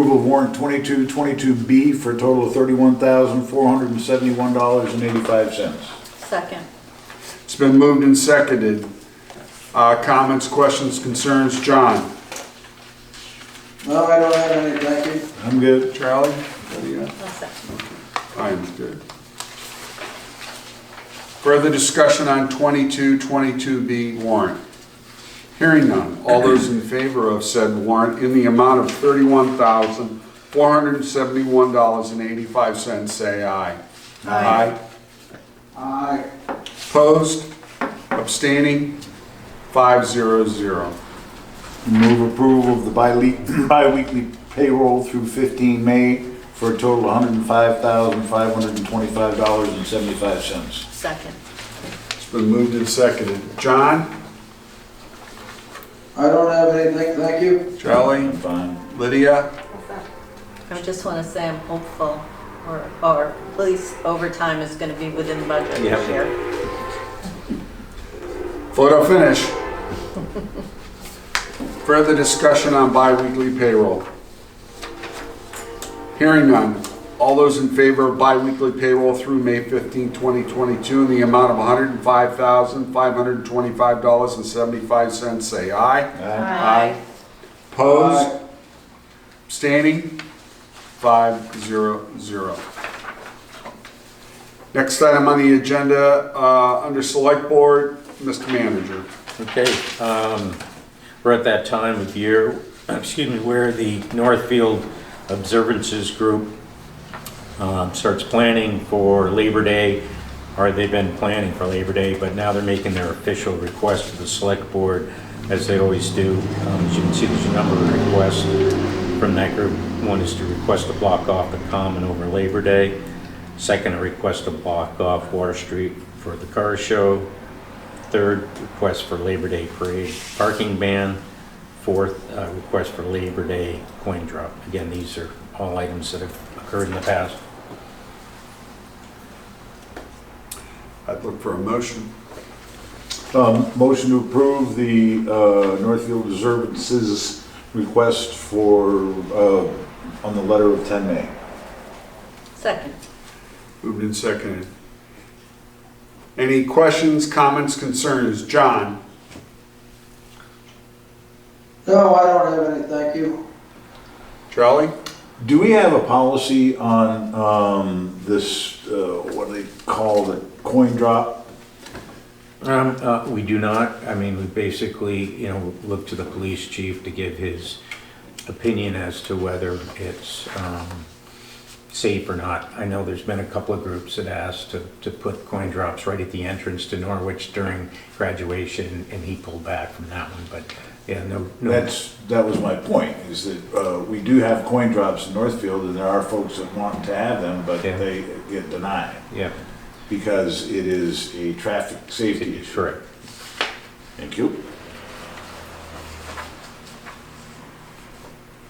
Approval of warrant 2222B for a total of $31,471.85. Second. It's been moved and seconded. Uh, Comments, questions, concerns? John? No, I don't have any, thank you. I'm good. Charlie? What do you got? No second. I'm good. Further discussion on 2222B warrant. Hearing none. All those in favor of said warrant in the amount of $31,471.85, say aye. Aye. Aye. Opposed? Abstaining? 500. Move approval of the bile- bi-weekly payroll through 15 May for a total of $105,525.75. Second. It's been moved and seconded. John? I don't have anything, thank you. Charlie? I'm fine. Lydia? I just want to say I'm hopeful, or, or at least overtime is going to be within budget this year. Photo finish. Further discussion on bi-weekly payroll. Hearing none. All those in favor of bi-weekly payroll through May 15, 2022 in the amount of $105,525.75, say aye. Aye. Opposed? Abstaining? Five zero zero. Next item on the agenda, uh, under Select Board, Mr. Manager. Okay, um, we're at that time of year, excuse me, where the Northfield Observances Group um, starts planning for Labor Day, or they've been planning for Labor Day, but now they're making their official request to the Select Board, as they always do. Um, As you can see, there's a number of requests from that group. One is to request to block off the common over Labor Day. Second, a request to block off Water Street for the car show. Third, request for Labor Day parade parking ban. Fourth, uh, request for Labor Day coin drop. Again, these are all items that have occurred in the past. I'd look for a motion. Um, Motion to approve the uh, Northfield Observances request for, uh, on the letter of 10 May. Second. Moved and seconded. Any questions, comments, concerns? John? No, I don't have any, thank you. Charlie? Do we have a policy on um, this, uh, what do they call it, coin drop? Um, uh, we do not, I mean, we basically, you know, look to the police chief to give his opinion as to whether it's, um, safe or not. I know there's been a couple of groups that asked to, to put coin drops right at the entrance to Norwich during graduation, and he pulled back from that one, but, yeah, no, no. That's, that was my point, is that uh, we do have coin drops in Northfield, and there are folks that want to have them, but Yeah. they get denied Yeah, because it is a traffic safety issue. correct. Thank you.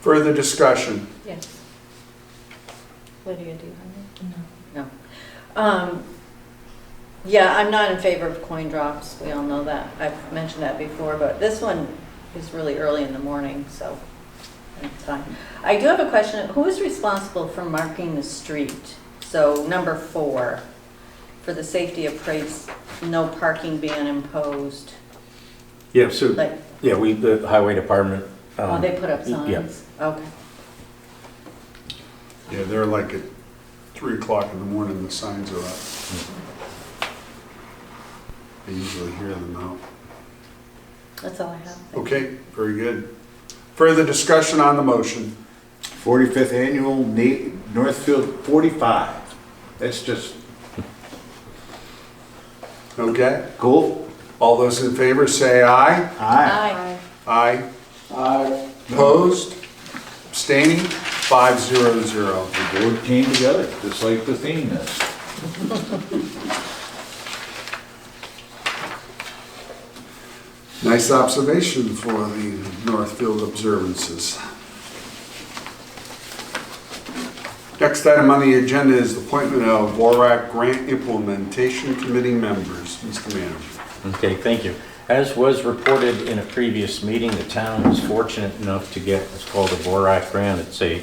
Further discussion? Yes. Lydia, do you have any? No. No. Um, Yeah, I'm not in favor of coin drops. We all know that. I've mentioned that before, but this one is really early in the morning, so it's fine. I do have a question. Who is responsible for marking the street? So number four, for the safety of parades, no parking ban imposed. Yeah, so, Like, yeah, we, the highway department. oh, um, they put up yeah. signs? Okay. Yeah, they're like at 3 o'clock in the morning, the signs are up. I usually hear them out. That's all I have. Okay, very good. Further discussion on the motion? 45th Annual Na- Northfield 45. That's just Okay? cool. All those in favor say aye. Aye. Aye. Aye. Aye. Opposed? Abstaining? Five zero zero. The board came together, just like the theme is. Nice observation for the Northfield observances. Next item on the agenda is the appointment of Vorak Grant Implementation Committee members. Mr. Manager. Okay, thank you. As was reported in a previous meeting, the town was fortunate enough to get what's called a Borak grant. It's a